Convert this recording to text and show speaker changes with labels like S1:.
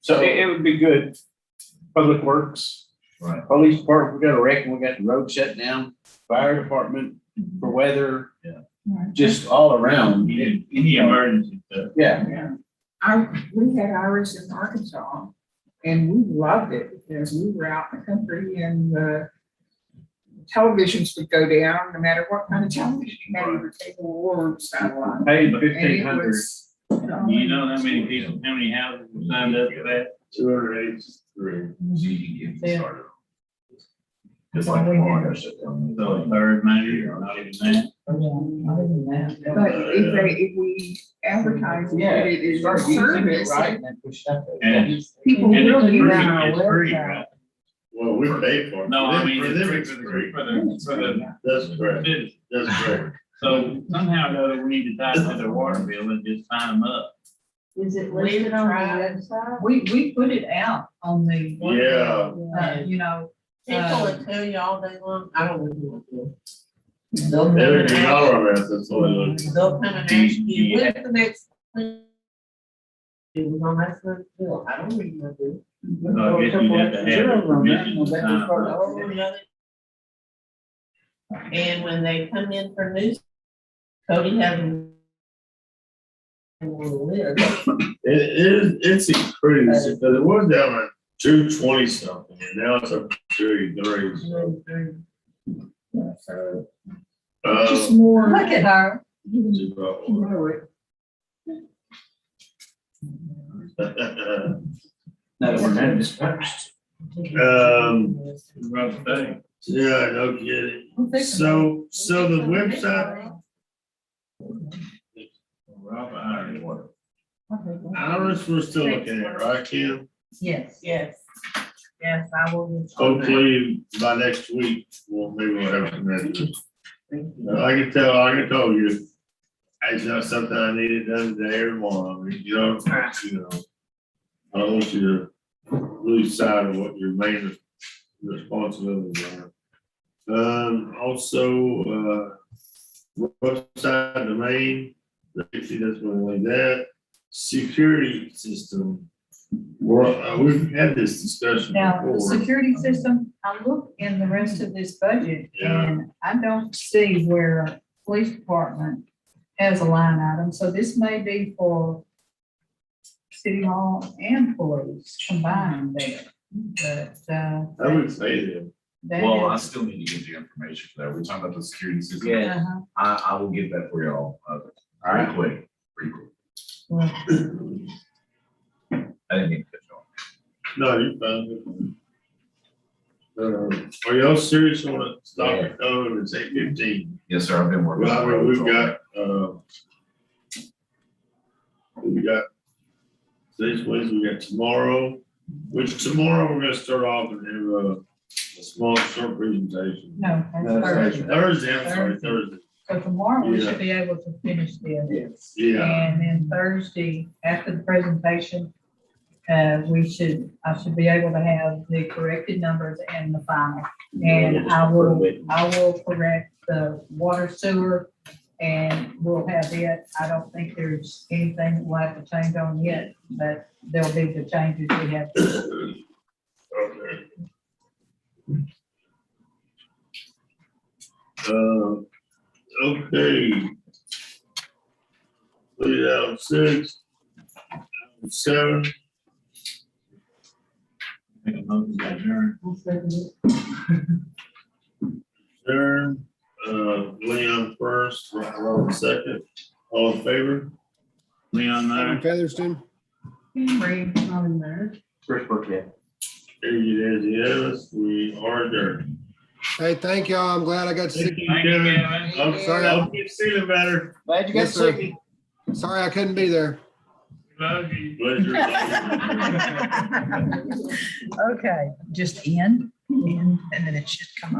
S1: So it, it would be good. Public Works.
S2: Right.
S1: Police Department, we got a wreck, and we got the road shut down, fire department
S3: Mm-hmm.
S1: for weather.
S2: Yeah.
S4: Right.
S1: Just all around. It-
S2: Any, any emergency stuff.
S1: Yeah,
S4: I, we had Irish in Arkansas and we loved it because we were out in the country and the televisions would go down, no matter what kind of television you had, either cable or satellite.
S1: paid
S4: And
S1: fifteen
S4: it
S1: hundred.
S4: was, um, you know,
S3: You know how many people, how many houses were signed up for that?
S1: Two hundred eighty.
S2: Through.
S5: Yeah.
S2: Just like Florida shut down.
S3: So a third maybe, or not even that.
S4: But if they, if we advertise it,
S5: Yeah.
S4: it is a service,
S5: Right, and push that.
S3: And-
S4: people
S3: And it's
S4: really
S3: free,
S4: use
S3: it's free, right?
S6: Well, we paid for it.
S3: No, I mean,
S6: For
S3: it's
S6: them,
S3: free
S6: it's
S3: for the,
S6: free.
S3: for the, for the
S6: That's correct,
S3: citizens.
S6: that's correct.
S3: So somehow or another, we need to tie it to their water bill and just sign them up.
S7: Is it
S5: We
S7: listed on the
S5: tried.
S7: website?
S5: We, we put it out on the.
S6: Yeah,
S5: Uh, you know.
S7: People would tell you all day long, I don't know what
S5: They'll come
S6: every
S5: and ask-
S6: dollar amount, that's what it looks.
S5: they'll
S7: they'll
S5: come
S7: come and
S5: and
S7: ask you,
S3: Yeah.
S7: when's the next? thing?" It was on that first bill, I don't remember.
S3: So I guess you have to have permission to sign them up.
S7: And when they come in for news, Cody had them. on the list.
S6: It is, it's increased, because it was down at two twenty something, and now it's up to two thirty, so. Uh,
S4: Just more.
S5: Look at her.
S6: it's about-
S4: You know, it-
S1: No, we're not dispersed.
S6: Um,
S3: Rough thing.
S6: yeah, no kidding. So, so the website,
S3: Rough iron.
S6: I don't know if we're still looking at it, right, Kim?
S5: Yes.
S7: Yes, yes, I will.
S6: Hopefully by next week, we'll, maybe we'll have some answers. I can tell, I can tell you, it's not something I needed done today or tomorrow, I mean, you know, you know. I don't want you to lose sight of what your main responsibilities are. Um, also, uh, website domain, see that's one like that, security system. Well, uh, we've had this discussion
S5: Now, the
S6: before.
S5: security system, I look in the rest of this budget
S6: Yeah.
S5: and I don't see where police department has a line item, so this may be for city hall and police combined there, but, uh.
S6: I would say that.
S5: that
S2: Well, I
S5: is-
S2: still need to get the information for that. We're talking about the security system.
S1: Yeah.
S5: Uh-huh.
S2: I, I will get that for y'all, uh, pretty quick, pretty quick.
S5: Well,
S2: I didn't mean to cut you off.
S6: No, you found it. Uh, Are y'all serious on it? Stop it, oh, it's eight fifteen.
S2: Yes, sir, I've been working.
S6: Well, I
S2: on
S6: mean,
S2: roads
S6: we've
S2: all
S6: got, uh, we got, today's Wednesday, we got tomorrow, which tomorrow we're gonna start off and have a, a small short presentation.
S5: No, that's Thursday.
S6: Thursday, I'm sorry, Thursday.
S5: So tomorrow we
S6: Yeah.
S5: should be able to finish this.
S6: Yeah,
S5: And then Thursday, after the presentation, uh, we should, I should be able to have the corrected numbers and the final. And I will, I will correct the water sewer and we'll have it. I don't think there's anything we'll have to change on yet, but there'll be the changes we have.
S6: Uh, okay. Uh, okay. Put it out six, seven,
S3: Make a motion to adjourn.
S6: Aaron, uh, Leon first, Ro- Robert second, all in favor?
S3: Leon, there.
S8: Featherston?
S4: Ray, not in there.
S1: First birthday.
S6: There you is, yes, we are there.
S8: Hey, thank y'all. I'm glad I got to
S6: Thank
S8: see.
S6: you,
S3: Thank you,
S6: Kevin.
S3: Kevin.
S6: I'm sorry, I'll keep feeling better.
S1: Glad you got
S8: Yes, sir.
S1: sick.
S8: Sorry I couldn't be there.
S3: Love you.
S6: Pleasure.
S5: Okay, just in, in, and then it should come up.